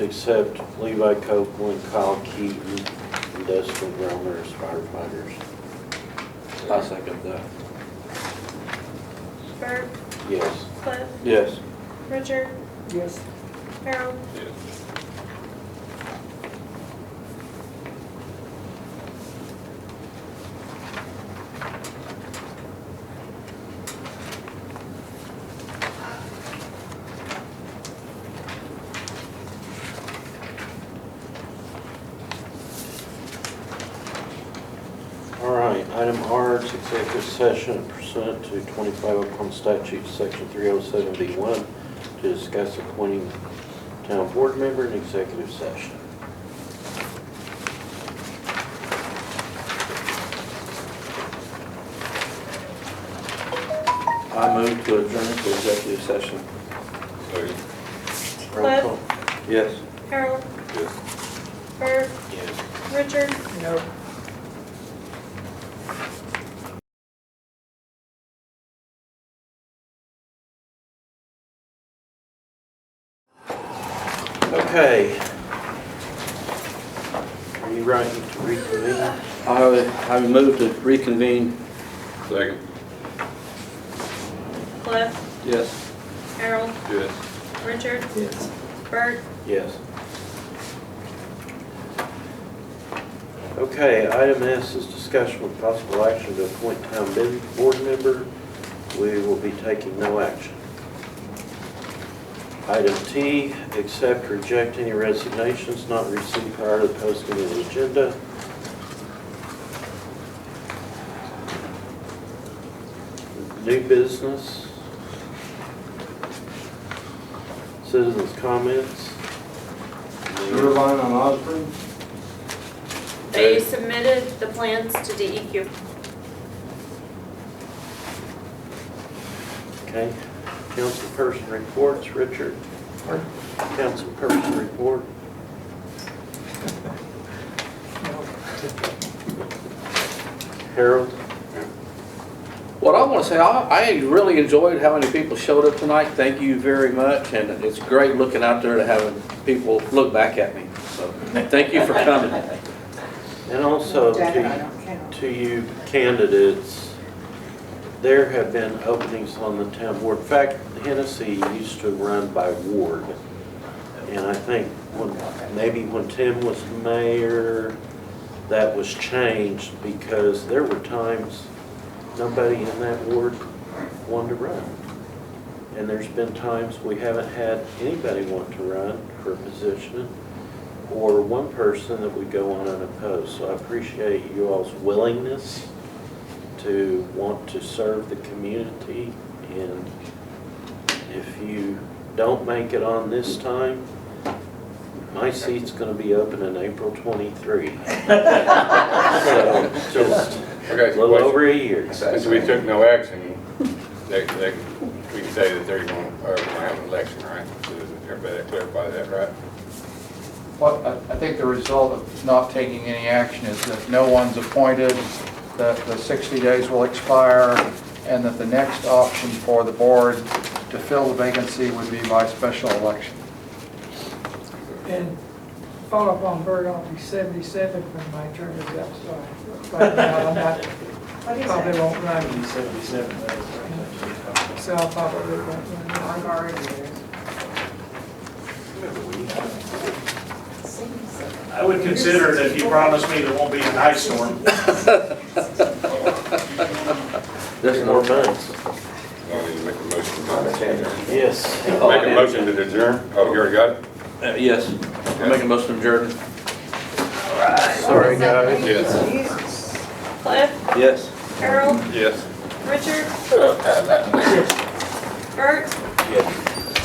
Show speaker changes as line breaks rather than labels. accept Levi Copeland, Kyle Keaton, and Dustin Drummer as firefighters. I second that.
Bert,
Yes.
Cliff,
Yes.
Richard,
Yes.
Harold,
All right, item R, it's executive session pursuant to 25 Oklahoma statute, section 3071, to discuss appointing town board member in executive session.
I move to adjourn to executive session.
Roll call. Yes.
Harold,
Yes.
Bert,
Yes.
Richard,
No.
Okay. Are you ready to reconvene?
I would, I would move to reconvene.
Second.
Cliff,
Yes.
Harold,
Yes.
Richard,
Yes.
Bert,
Yes. Okay, item S is discussion with possible action to appoint town bu- board member. We will be taking no action. Item T, accept, or reject any resignations not received prior to the posting of the agenda. New business. Citizens' comments.
Sewer line on Osborne,
They submitted the plans to
E
DEQ.
Okay, councilperson reports, Richard. Councilperson report. Harold,
What I want to say, I, I really enjoyed how many people showed up tonight. Thank you very much, and it's great looking out there to having people look back at me. So, thank you for coming.
and also
Janet, I
to,
don't count.
to you candidates, there have been openings on the town board. In fact, Hennessy used to run by ward. And I think when, maybe when Tim was mayor, that was changed because there were times nobody in that ward wanted to run. And there's been times we haven't had anybody want to run for a position or one person that would go on unopposed. So I appreciate you all's willingness to want to serve the community. And if you don't make it on this time, my seat's gonna be open in April twenty-three. So, just a
Okay, so
little
question.
over a year.
Since we took no action, they, they, we can say that they're going, or we're gonna have an election, right? So does Everybody clarify that, right?
Well, I I think the result of not taking any action is that no one's appointed, that the 60 days will expire, and that the next option for the board to fill the vacancy would be by special election.
And follow up on Bert, I'll be 77 when my term is up, so right now I'm not, probably won't run,
seventy-seven, that is right.
so I probably won't run.
I would consider it if you promised me there won't be an ice storm.
There's
More
no-
months.
Don't need to make a motion. Make
Yes.
a motion to adjourn? Oh, you already got it?
Uh, Yes, I'm making a motion to adjourn.
Sorry, guys.
Yes.
Cliff,
Yes.
Harold,
Yes.
Richard, Bert,